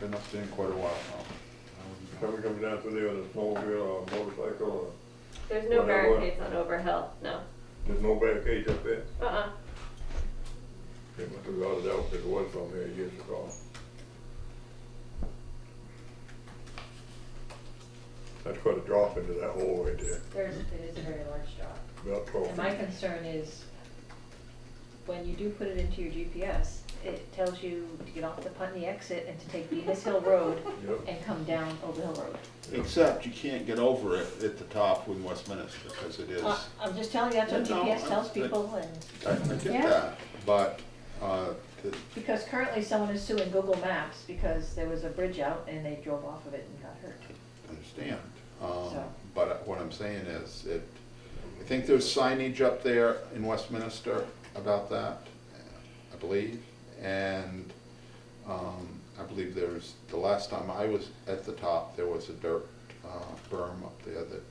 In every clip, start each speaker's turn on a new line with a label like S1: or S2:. S1: been up there in quite a while now.
S2: Somebody comes down through there with a snowmobile or a motorcycle, or,
S3: There's no
S2: Whatever.
S3: barricades on Overhill, no.
S2: there's no barricades up there.
S3: Uh-uh.
S2: They must have got it out, 'cause it was from here years ago. That's quite a drop into that hole right there,
S4: There's, it is a very large drop.
S2: about twelve
S4: And my
S2: feet.
S4: concern is, when you do put it into your GPS, it tells you to get off the Putney exit and to take Venus Hill Road
S2: Yep.
S4: and come down Overhill Road.
S1: Except you can't get over it at the top with Westminster, because it is,
S4: Uh, I'm just telling you, that's what
S1: Yeah, no,
S4: GPS tells
S1: I-
S4: people, and,
S1: I I get
S4: Yeah.
S1: that, but, uh, the-
S4: because currently someone is suing Google Maps because there was a bridge out and they drove off of it and got hurt.
S1: understand. Um,
S4: So-
S1: But what I'm saying is, it, I think there's signage up there in Westminster about that, I believe. And um, I believe there's, the last time I was at the top, there was a dirt uh, berm up there that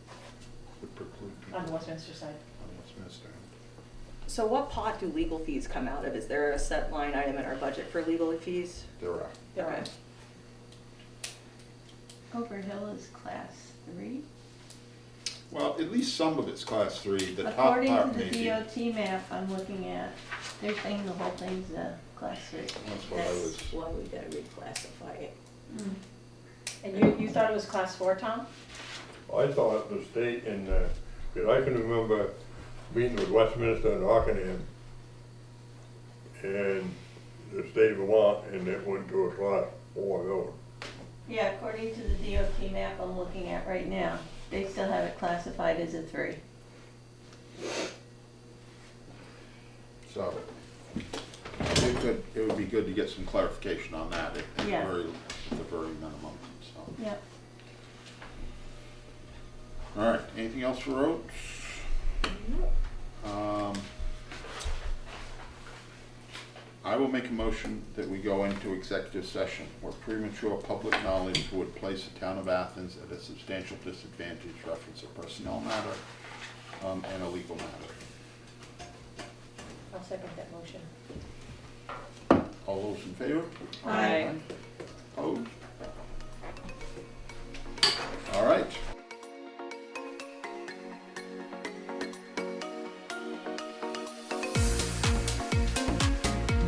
S1: would preclude people.
S4: On the Westminster side.
S1: on Westminster.
S5: So what pot do legal fees come out of? Is there a set line item in our budget for legal fees?
S1: There are,
S4: There are.
S5: Okay.
S6: Overhill is class three.
S1: well, at least some of it's class three, the top part maybe.
S6: According to the DOT map I'm looking at, they're saying the whole thing's a class three.
S1: That's what I was,
S5: why we gotta reclassify it.
S4: And you, you thought it was class four, Tom?
S2: I thought the state and, uh, 'cause I can remember meeting with Westminster and Rockingham and the state of Vermont, and it went to a class four road.
S6: Yeah, according to the DOT map I'm looking at right now, they still have it classified as a three.
S1: so, it could, it would be good to get some clarification on that at at the
S6: Yeah.
S1: very, at the very minimum, so.
S6: Yep.
S1: All right, anything else for roads? Um, I will make a motion that we go into executive session where premature public knowledge would place the town of Athens at a substantial disadvantage, reference a personnel matter, um, and a legal matter.
S4: I'll second that motion.
S1: All those in favor?
S6: Aye.
S1: Opposed? All right.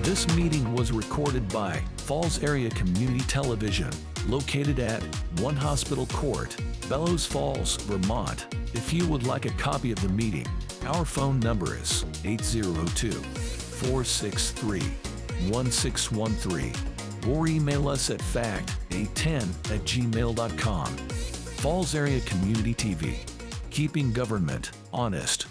S7: This meeting was recorded by Falls Area Community Television, located at One Hospital Court, Bellows Falls, Vermont. If you would like a copy of the meeting, our phone number is 802 463 1613 or email us at fact810 at gmail.com. Falls Area Community TV, keeping government honest.